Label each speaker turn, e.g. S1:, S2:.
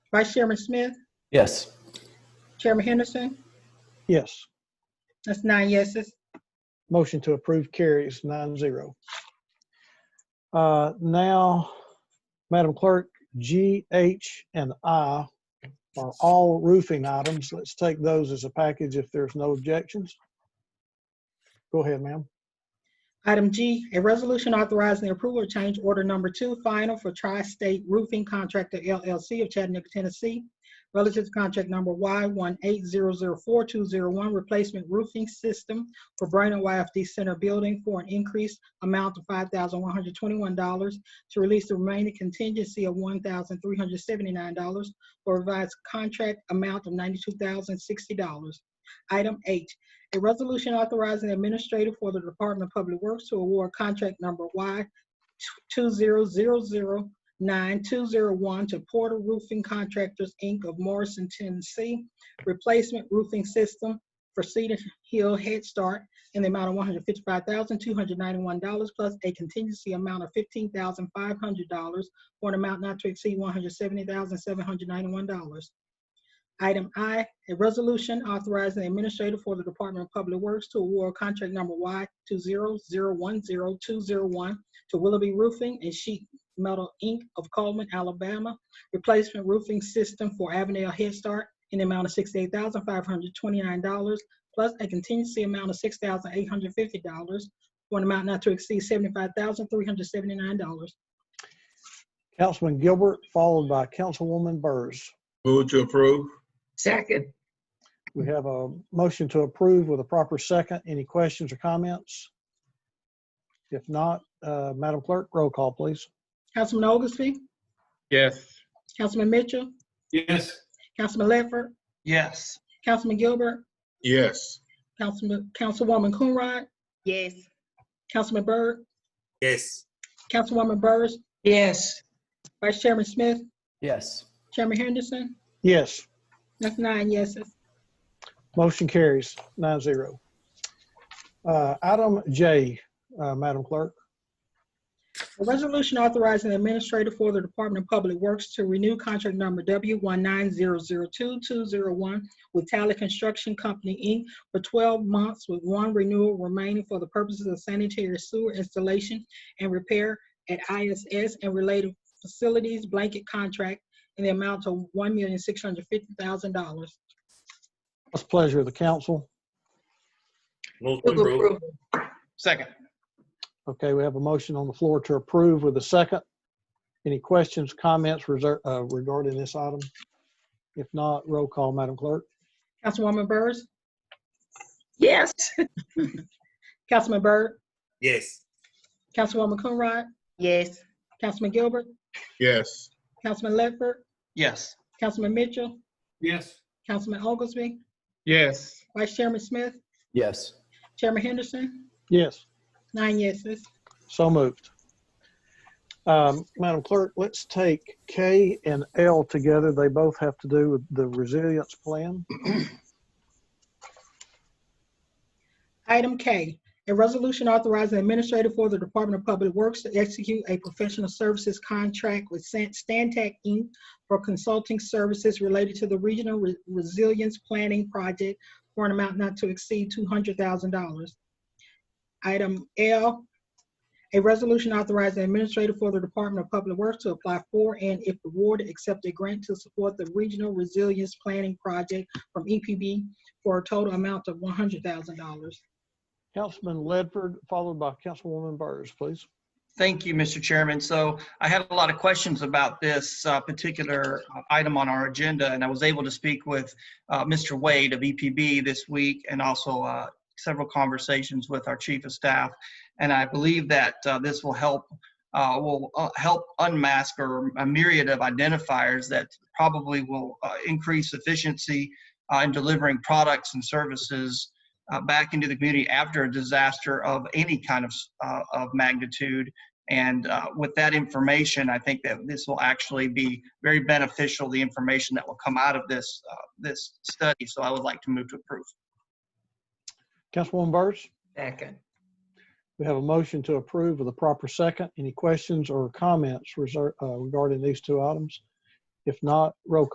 S1: Vice Chairman Smith,
S2: Yes.
S1: Chairman Henderson.
S3: Yes.
S1: That's nine yeses.
S3: Motion to approve carries nine zero. Uh, Now, Madam Clerk, G, H, and I are all roofing items. Let's take those as a package if there's no objections. Go ahead, ma'am.
S1: Item G, a resolution authorizing the approval of change order number two final for Tri-State Roofing Contractor LLC of Chattanooga, Tennessee, relative to contract number Y one eight zero zero four two zero one, replacement roofing system for Brainerd YFD Center Building for an increased amount of five thousand one hundred twenty-one dollars to release the remaining contingency of one thousand three hundred seventy-nine dollars for revised contract amount of ninety-two thousand sixty dollars. Item H, a resolution authorizing the administrator for the Department of Public Works to award contract number Y two zero zero zero nine two zero one to Porter Roofing Contractors, Inc. of Morrison, Tennessee, replacement roofing system for Cedar Hill Head Start in the amount of one hundred fifty-five thousand two hundred ninety-one dollars plus a contingency amount of fifteen thousand five hundred dollars for an amount not to exceed one hundred seventy thousand seven hundred ninety-one dollars. Item I, a resolution authorizing the administrator for the Department of Public Works to award contract number Y two zero zero one zero two zero one to Willoughby Roofing and Sheet Metal, Inc. of Coleman, Alabama, replacement roofing system for Avondale Head Start in the amount of sixty-eight thousand five hundred twenty-nine dollars plus a contingency amount of six thousand eight hundred fifty dollars for an amount not to exceed seventy-five thousand three hundred seventy-nine dollars.
S3: Councilman Gilbert, followed by Councilwoman Burrs.
S4: Move to approve?
S5: Second,
S3: We have a motion to approve with a proper second. Any questions or comments? If not, uh, Madam Clerk, roll call, please.
S1: Councilman Auguste,
S4: Yes.
S1: Councilman Mitchell,
S2: Yes.
S1: Councilman Ledford,
S6: yes,
S1: Councilman Gilbert,
S4: Yes.
S1: Councilman, Councilwoman Coonrod,
S5: yes.
S1: Councilman Byrd,
S7: yes,
S1: Councilwoman Burrs,
S6: yes,
S1: Vice Chairman Smith,
S2: Yes.
S1: Chairman Henderson.
S3: Yes.
S1: That's nine yeses.
S3: Motion carries nine zero. Uh, Item J, uh, Madam Clerk.
S1: A resolution authorizing the administrator for the Department of Public Works to renew contract number W one nine zero zero two two zero one with Tally Construction Company, Inc. for twelve months with one renewal remaining for the purposes of sanitary sewer installation and repair at ISS and related facilities blanket contract in the amount of one million six hundred fifty thousand dollars.
S3: What's the pleasure of the council?
S7: move to
S5: Move
S7: approve,
S5: approval,
S6: second,
S3: Okay, we have a motion on the floor to approve with a second. Any questions, comments reser- uh, regarding this item? If not, roll call, Madam Clerk.
S1: Councilwoman Burrs,
S5: yes.
S1: Councilman Byrd,
S7: yes,
S1: Councilwoman Coonrod,
S5: Yes.
S1: Councilman Gilbert,
S4: Yes.
S1: Councilman Ledford,
S6: yes,
S1: Councilman Mitchell,
S4: Yes.
S1: Councilman Oglesby,
S4: Yes.
S1: Vice Chairman Smith,
S2: Yes.
S1: Chairman Henderson,
S3: Yes.
S1: nine yeses.
S3: So moved. Um, Madam Clerk, let's take K and L together. They both have to do with the resilience plan.
S1: Item K, a resolution authorizing administrator for the Department of Public Works to execute a professional services contract with San- Stantec Inc. for consulting services related to the Regional Re- Resilience Planning Project for an amount not to exceed $200,000. Item L, a resolution authorizing administrator for the Department of Public Works to apply for and if awarded, accept a grant to support the Regional Resilience Planning Project from EPB for a total amount of $100,000.
S3: Councilman Ledford, followed by Councilwoman Burrs, please.
S6: Thank you, Mr. Chairman. So I had a lot of questions about this uh, particular item on our agenda, and I was able to speak with uh, Mr. Wade of EPB this week and also uh, several conversations with our chief of staff. And I believe that uh, this will help, uh, will uh, help unmask or a myriad of identifiers that probably will uh, increase efficiency uh, in delivering products and services uh, back into the community after a disaster of any kind of, uh, of magnitude. And uh, with that information, I think that this will actually be very beneficial, the information that will come out of this, uh, this study. So I would like to move to approve.
S3: Councilwoman Burrs?
S5: Second,
S3: We have a motion to approve with a proper second. Any questions or comments reser- uh, regarding these two items? If not, roll call.